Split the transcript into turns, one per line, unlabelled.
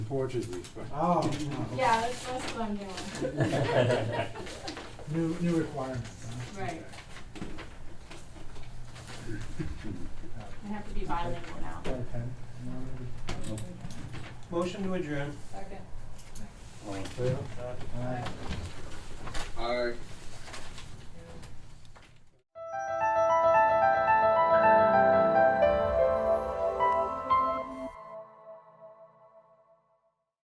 Portuguese, but
Oh, no.
Yeah, that's, that's what I'm doing.
New, new requirements, huh?
Right. I have to be bilingual now.
Got a pen? No, maybe.
Motion to adjourn.
Second.
all in favor?
All right.
Aye.